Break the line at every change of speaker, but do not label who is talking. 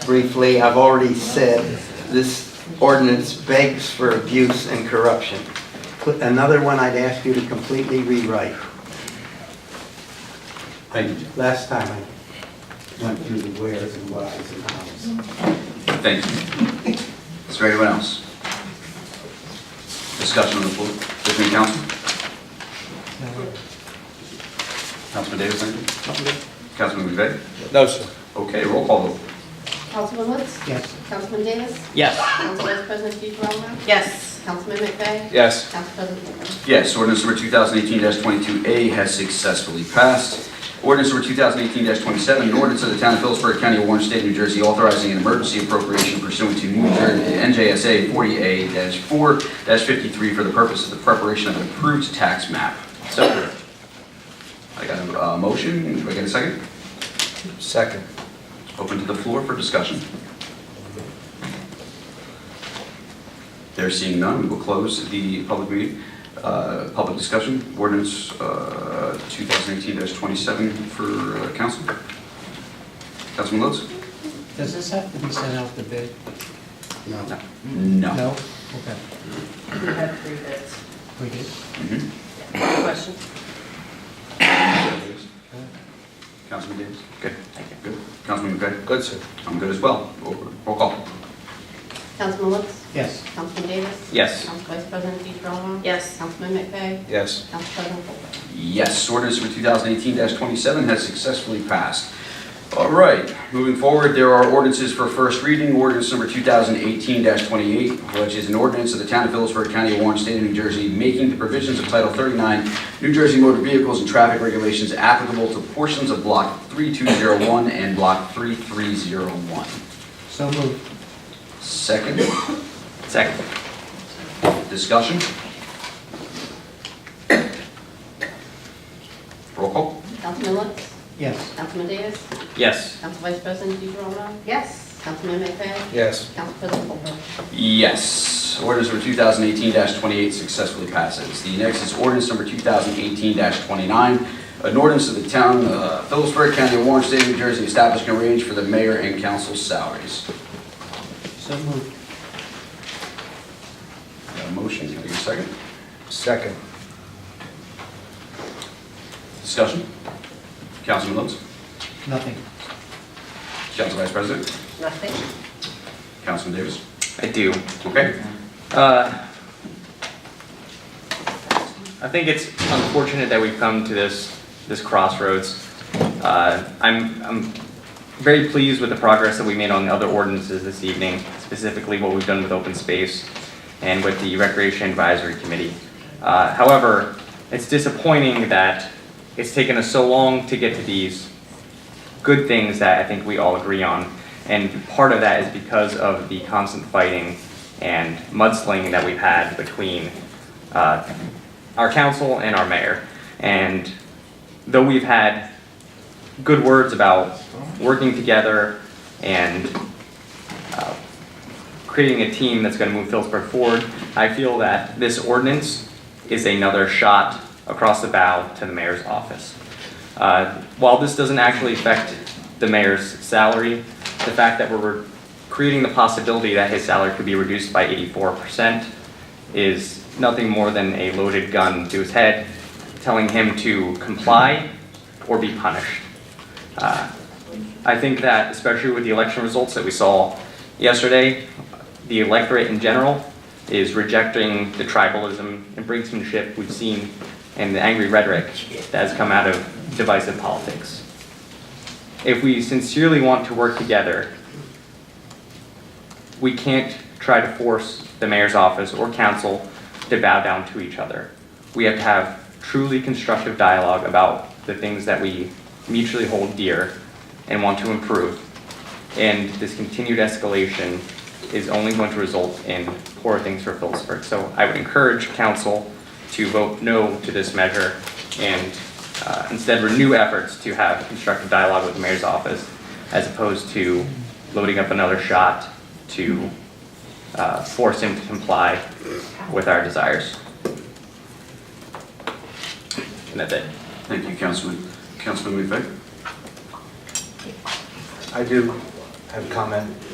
briefly, I've already said, this ordinance begs for abuse and corruption. Put Another one I'd ask you to completely rewrite.
Thank you, Jim.
Last time I went through the wheres and whys and hows.
Thank you. Is there anyone else? Discussion on the floor between council? Councilman Davis, thank you. Councilman McVeigh?
No, sir.
Okay, roll call vote.
Councilman Woods?
Yes.
Councilman Davis?
Yes.
Council Vice President DeGarmo?
Yes.
Councilman McVeigh?
Yes.
Council President Ballmer?
Yes, ordinance number 2018-22A has successfully passed. Ordinance number 2018-27, an ordinance of the Town of Phillipsburg County, Warren State, New Jersey, authorizing an emergency appropriation pursuant to New Jersey NJSA 40A-4-53 for the purpose of the preparation of an approved tax map. So moved. I got a uh, motion. Do I get a second?
Second.
Open to the floor for discussion. There seeing none, we will close the public meeting, uh, public discussion, ordinance uh, 2018-27 for uh, council. Councilman Lutz?
Does this have to be sent out to bid?
No.
No.
No? Okay,
We had three bids.
we did.
Mhm.
Question?
Councilman Davis? Okay, good. Councilman McVeigh?
Good, sir.
I'm good as well. Roll roll call.
Councilman Woods?
Yes.
Councilman Davis?
Yes.
Council Vice President DeGarmo?
Yes.
Councilman McVeigh?
Yes.
Council President Ballmer?
Yes, ordinance number 2018-27 has successfully passed. All right, moving forward, there are ordinances for first reading. Ordinance number 2018-28, which is an ordinance of the Town of Phillipsburg, County of Orange, State of New Jersey, making the provisions of Title 39, New Jersey Motor Vehicles and Traffic Regulations applicable to portions of Block 3201 and Block 3301.
So moved.
Second,
Second.
discussion? Roll call?
Councilman Woods?
Yes.
Councilman Davis?
Yes.
Council Vice President DeGarmo?
Yes.
Councilman McVeigh?
Yes.
Council President Ballmer?
Yes. Ordinance number 2018-28 successfully passes. The next is ordinance number 2018-29, an ordinance of the town of Phillipsburg, County of Warren, State of New Jersey, establishing a range for the mayor and council salaries.
So moved.
Got a motion, can I get a second?
Second.
Discussion? Councilman Lutz?
Nothing.
Council Vice President?
Nothing?
Councilman Davis?
I do.
Okay.
Uh, I think it's unfortunate that we've come to this, this crossroads. Uh, I'm, I'm very pleased with the progress that we made on the other ordinances this evening, specifically what we've done with open space and with the Recreation Advisory Committee. Uh, However, it's disappointing that it's taken us so long to get to these good things that I think we all agree on. And part of that is because of the constant fighting and mudslinging that we've had between uh, our council and our mayor. And though we've had good words about working together and uh, creating a team that's going to move Phillipsburg forward, I feel that this ordinance is another shot across the bow to the mayor's office. Uh, While this doesn't actually affect the mayor's salary, the fact that we're creating the possibility that his salary could be reduced by 84% is nothing more than a loaded gun to his head, telling him to comply or be punished. Uh, I think that, especially with the election results that we saw yesterday, the electorate in general is rejecting the tribalism and brinksmanship we've seen and the angry rhetoric that has come out of divisive politics. If we sincerely want to work together, we can't try to force the mayor's office or council to bow down to each other. We have to have truly constructive dialogue about the things that we mutually hold dear and want to improve. And this continued escalation is only going to result in poor things for Phillipsburg. So I would encourage council to vote no to this measure and uh, instead renew efforts to have constructive dialogue with the mayor's office as opposed to loading up another shot to uh, force him to comply with our desires. And that's it.
Thank you, Councilman. Councilman McVeigh?
I do have a comment.